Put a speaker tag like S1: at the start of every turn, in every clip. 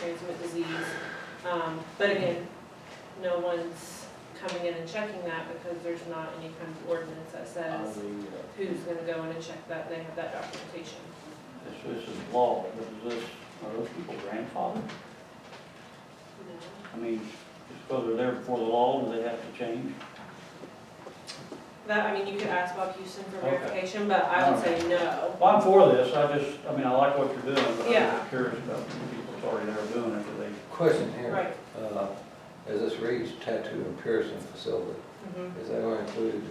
S1: transmit disease. Um, But again, no one's coming in and checking that because there's not any kind of ordinance that says
S2: uh,
S1: who's gonna go in and check that, they have that documentation.
S2: This, this is law, but is this, are those people grandfathered? I mean, just because they're there before the law, do they have to change?
S1: That, I mean, you could ask Bob Houston for
S2: Okay.
S1: verification, but I would say no.
S2: Well, I'm for this, I just, I mean, I like what you're doing, but I'm
S1: Yeah.
S2: just curious about the people that's already there doing it, do they?
S3: Question here,
S1: Right.
S3: uh, as this reads tattoo and piercing facility,
S1: Mhm.
S3: is that going to include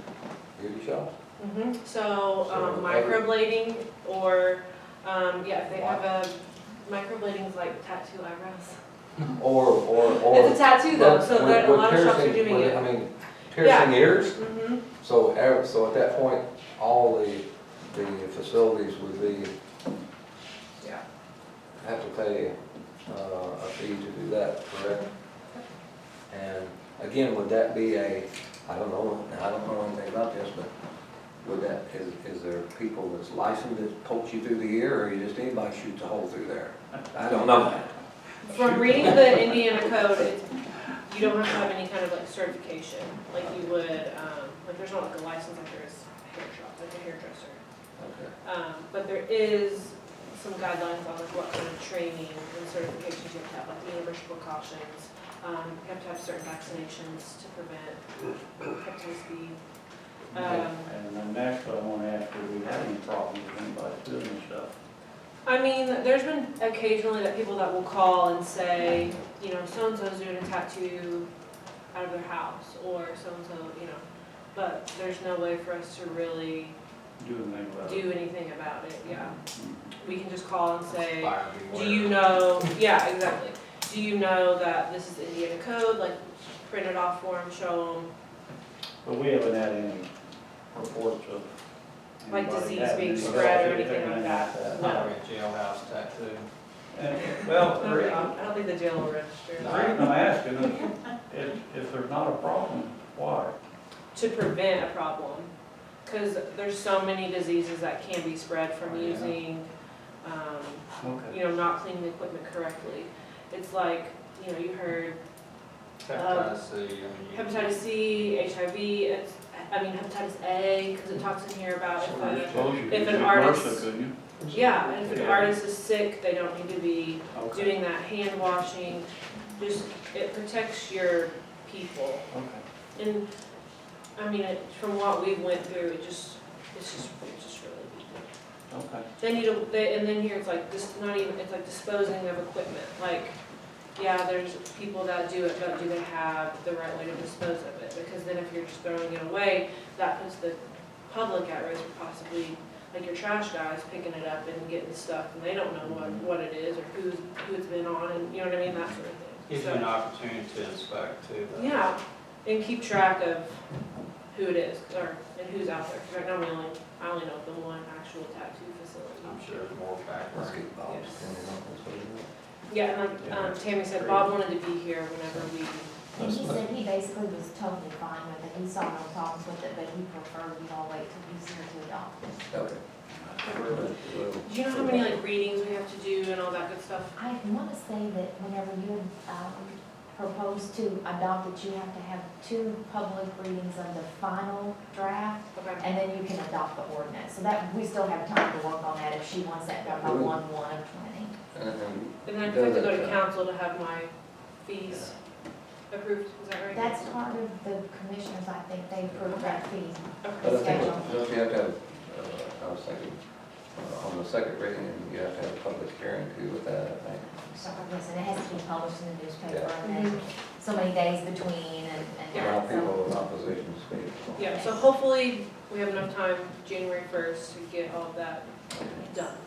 S3: beauty shops?
S1: hmm so, um,
S3: So,
S1: microblading or, um, yeah, if they have a, microblading's like tattoo eyebrows.
S3: Or, or, or?
S1: It's a tattoo though, so
S3: Would-
S1: that, a
S3: would
S1: lot of shops are
S3: piercing-
S1: doing
S3: would
S1: it.
S3: I mean, piercing ears,
S1: hmm
S3: so, ev- so at that point, all the, the facilities would be,
S1: yeah.
S3: have to pay uh, a fee to do that, correct? And again, would that be a, I don't know, I don't know anything about this, but would that, is, is there people that's licensed that poke you through the ear, or you just anybody shoots a hole through there? I don't know that.
S1: From reading the Indiana code, it's, you don't have to have any kind of like certification, like you would, um, like there's not like a license like there is a hair shop, like a hairdresser.
S3: Okay.
S1: Um, but there is some guidelines on like what kind of training and certifications you have to have, like the universal precautions. Um, you have to have certain vaccinations to prevent hepatitis B. Um,
S2: And then next, I wanna ask, do we have any problems with anybody doing this stuff?
S1: I mean, there's been occasionally that people that will call and say, you know, so-and-so's doing a tattoo out of their house, or so-and-so, you know, but there's no way for us to really
S2: Doing anything about it?
S1: do anything about it, yeah.
S2: Mhm.
S1: We can just call and say, Do you know, yeah, exactly. Do you know that this is Indiana code, like print it off for them, show
S2: But we haven't had any reports of.
S1: Like
S2: anybody
S1: disease
S2: having
S1: being
S2: any
S1: spread or
S2: issues
S1: anything like that. No.
S4: Not a jailhouse tattoo.
S2: And, well,
S1: them.
S2: the re- I'm-
S1: I don't think the jail will register.
S2: the reason I'm asking is, if, if there's not a problem, why?
S1: To prevent a problem, because there's so many diseases that can be spread
S2: Oh,
S1: from
S2: yeah.
S1: using, um,
S2: Okay.
S1: you know, not cleaning the equipment correctly. It's like, you know, you heard
S4: Hepatitis C, I mean. you-
S1: Uh, hepatitis C, HIV, it's, I mean hepatitis A, because it talks in here about if a If an artist-
S2: Couldn't
S1: Yeah, and if an
S2: Yeah.
S1: artist is sick, they don't need to be
S2: you? Okay.
S1: doing that hand washing. Just, it protects your people.
S2: Okay.
S1: And, I mean, it- from what we went through, it just, it's just, it's just really weak.
S2: Okay,
S1: Then you don't, they- and then here it's like, this, not even, it's like disposing of equipment. Like, yeah, there's people that do it, but do they have the right way to dispose of it? Because then if you're just throwing it away, that puts the public at risk for possibly, like your trash guys picking it up and getting stuff, and they don't know what, what it is or who's, who it's been on, and you know what I mean, that sort of thing.
S4: Gives you
S1: So-
S4: an opportunity to inspect too. though.
S1: Yeah, and keep track of who it is, or, and who's out there, 'Cause right now we only, I only know the one actual tattoo facility.
S4: I'm sure there's more
S3: Let's
S4: background.
S3: get Bob's
S1: Yes.
S3: opinion on this, what do you
S1: Yeah, and like, um, Tammy said, Bob wanted to be here whenever we,
S5: And he said he basically was totally fine with it, he saw no problems with it, but he preferred we all wait till he's here to adopt. it.
S3: know? Okay.
S1: do you know how many like readings we have to do and all that good stuff?
S5: I want to say that whenever you, um, propose to adopt it, you have to have two public readings of the final draft,
S1: Okay,
S5: and then you can adopt the ordinance, so that, we still have time to work on that if she wants that done by
S3: Really?
S5: one, one of twenty.
S3: And- and
S1: and then I have to go to council to have my fees approved, is that right?
S5: That's part of the commissioners, I think, they approved that fee.
S3: uh, But I
S1: Okay,
S3: think, don't you have to have, uh, I was thinking, uh, on the second reading, you have to have a public hearing too with that, I think.
S5: So, yes, and it has to be published in the newspaper,
S3: Yeah.
S5: and then so many days between, and, and.
S3: A lot
S5: that,
S3: of
S5: so-
S3: people in opposition speak.
S1: yeah, so hopefully we have enough time, January first, to get all of that done.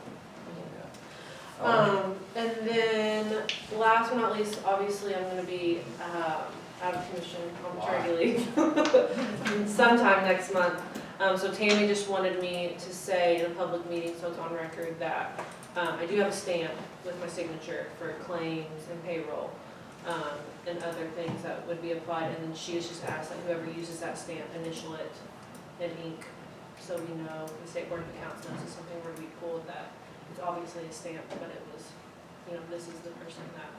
S3: Um,
S1: Um, and then, last but not least, obviously, I'm gonna be, um, out of commission on maternity leave. Sometime next month, um, so Tammy just wanted me to say in a public meeting, so it's on record, that, um, I do have a stamp with my signature for claims and payroll, um, and other things that would be applied, and then she has just asked that whoever uses that stamp initial it in ink, so we know, the state board of accounts knows it's something where we pulled that it's obviously a stamp, but it was, you know, this is the person that